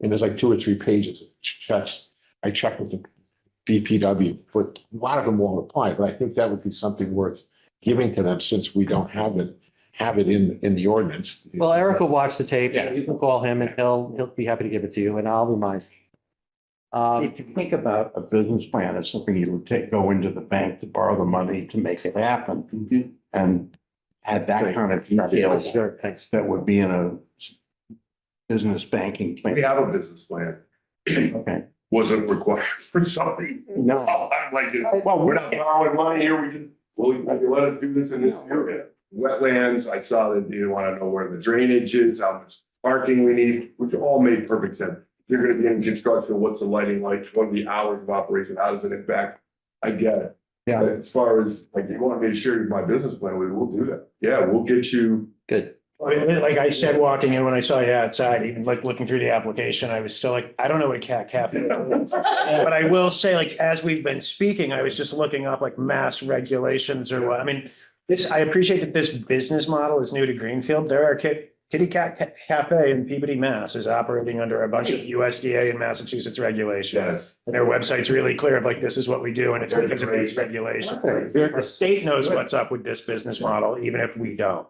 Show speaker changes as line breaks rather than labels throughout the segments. And there's like two or three pages of checks. I checked with the DPW, but a lot of them won't apply, but I think that would be something worth giving to them since we don't have it, have it in, in the ordinance.
Well, Eric will watch the tape.
Yeah.
You can call him and he'll, he'll be happy to give it to you and I'll remind. you. Um,
If you think about a business plan as something you would take, go into the bank to borrow the money to make it
Mm-hmm.
happen. And add that kind of detail
sure, thanks.
that would be in a business banking
We
plan.
have a business plan.
Okay.
Wasn't required for something.
No.
So I'm like, it's-
Well,
we're not borrowing money here. We can, well, you can let us do this in this area. Wetlands, I saw that you want to know where the drainage is, how much parking we need, which all made perfect sense. You're going to be in construction, what's the lighting like, what are the hours of operation, how does it impact? I get it.
Yeah.
But As far as, like, you want me to share my business plan, we will do that. Yeah, we'll get you.
Good.
Well, it- Like I said, walking in, when I saw you outside, even like looking through the application, I was still like, I don't know what a cat cafe is. But I will say, like, as we've been speaking, I was just looking up like mass regulations or what, I mean, this, I appreciate that this business model is new to Greenfield. There are ki- kitty cat Ca- cafe in Peabody, Mass is operating under a bunch of USDA and Massachusetts regulations. And their website's really clear of like, this is what we do and it's because of these regulations. The state knows what's up with this business model, even if we don't.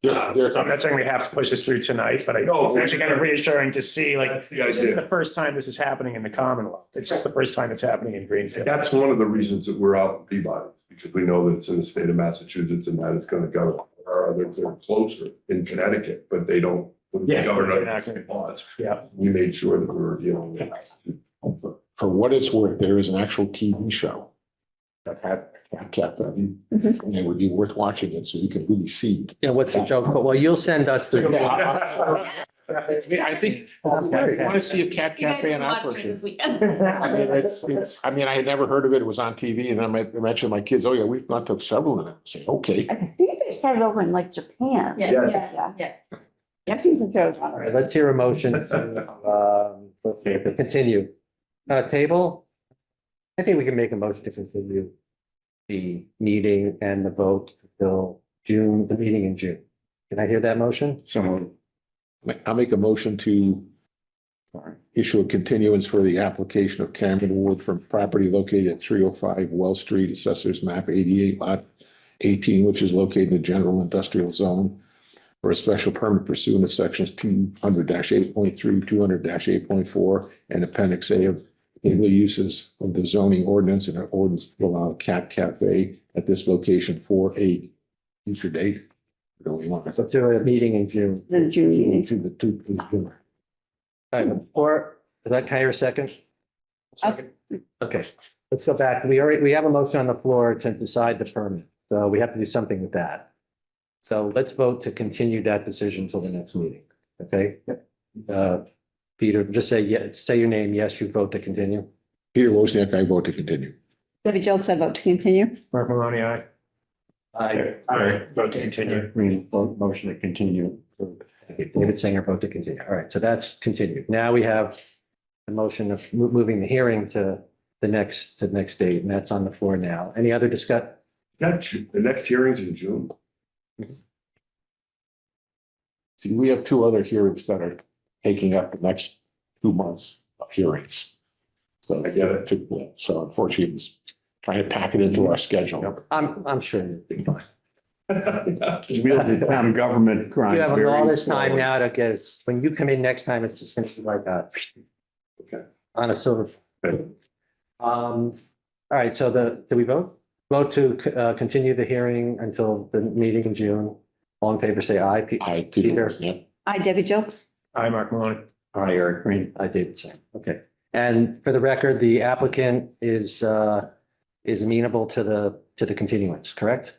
They're- they're-
Um, So I'm not saying we have to push this through tonight, but I,
No,
it's actually kind of reassuring to see, like,
That's the
this isn't
idea.
the first time this is happening in the Commonwealth. It's just the first time it's happening in Greenfield.
That's one of the reasons that we're out in Peabody, because we know that it's in the state of Massachusetts and that it's gonna govern. Our others are closer in Connecticut, but they don't.
Yeah.
govern under the same laws.
Yeah.
We made sure that we were dealing with.
For what it's worth, there is an actual TV show that had Cat Cafe.
Mm-hmm.
And it would be worth watching it so you could really see.
Yeah, what's the joke? Well, you'll send us the.
I think, Oh, wanna see a Cat
You guys can watch me this weekend.
I mean, it's, it's, I mean, I had never heard of it. It was on TV and then I mentioned my kids, oh yeah, we've gone to several of them. I Say, okay.
I think they started over in like Japan.
Yeah.
Yes.
Yeah.
Yeah.
I've seen some shows on
All
it.
right, let's hear a motion to, um, continue. Uh, table? I think we can make a motion to continue the meeting and the vote till June, the meeting in June. Can I hear that motion?
So I'll make a motion to issue a continuance for the application of Cameron Wood from property located at three oh five Well Street, assessors map eighty-eight lot eighteen, which is located in the general industrial zone for a special permit pursuant to sections two hundred eight point three, two hundred eight point four, and appendix A of illegal uses of the zoning ordinance and an ordinance to allow a cat cafe at this location for a future date. Do we want
So
to?
to a meeting in June.
The June meeting.
To the, to the.
All right, Or, is that Kyra second?
Second.
Okay, let's go back. We already, we have a motion on the floor to decide the permit, so we have to do something with that. So let's vote to continue that decision till the next meeting, okay? Uh, Peter, just say, yeah, say your name, yes, you vote to continue.
Peter Wozniak, I vote to continue.
Debbie Jokes, I vote to continue.
Mark Maloney, aye. Vote to continue.
Green, motion to continue.
Okay, David Singer, vote to continue. All right, so that's continued. Now we have the motion of mo- moving the hearing to the next, to the next date, and that's on the floor now. Any other discuss?
That, Ju- the next hearing's in June.
See, we have two other hearings that are taking up the next two months of hearings. So I get it. So unfortunately, it's trying to pack it into our schedule.
I'm, I'm sure you'll be fine.
Real town government grind.
You have all this time now
now.
to get, it. when you come in next time, it's just gonna be like that.
Okay.
On a silver.
Okay.
Um, all right, so the, do we vote? Vote to uh, continue the hearing until the meeting in June. All in favor, say aye. Pe-
I, Peter
Peter.
Wozniak,
I, Debbie Jokes.
Aye, Mark Maloney.
Aye, Eric Green.
I did say, okay. And for the record, the applicant is, uh, is amenable to the, to the continuance, correct?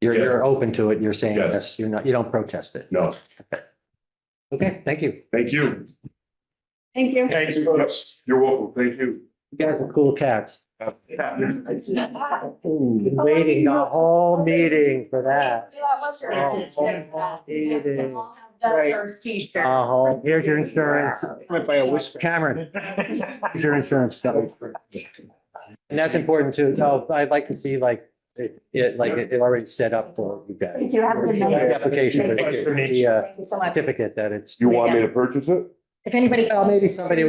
You're,
Yes.
you're open to it. You're saying
Yes.
yes, you're not, you don't protest it.
No,
Okay, thank you.
thank you.
Thank you.
Thank you.
You're welcome. Thank you.
You guys are cool cats.
That
Been waiting the whole meeting for that.
was your-
Oh,
Yes, yes, yes.
it is.
I'll have that
Right.
first T-shirt.
Uh huh. Here's your insurance.
Went by a whisper.
Cameron, here's your insurance stuff. And that's important too. No, I'd like to see like, it, it, like it it already set up for you guys.
Thank you. Have a good
The
night.
Application, the uh,
Thank you so much.
certificate that it's.
You want me to purchase it?
If anybody.
Well, maybe somebody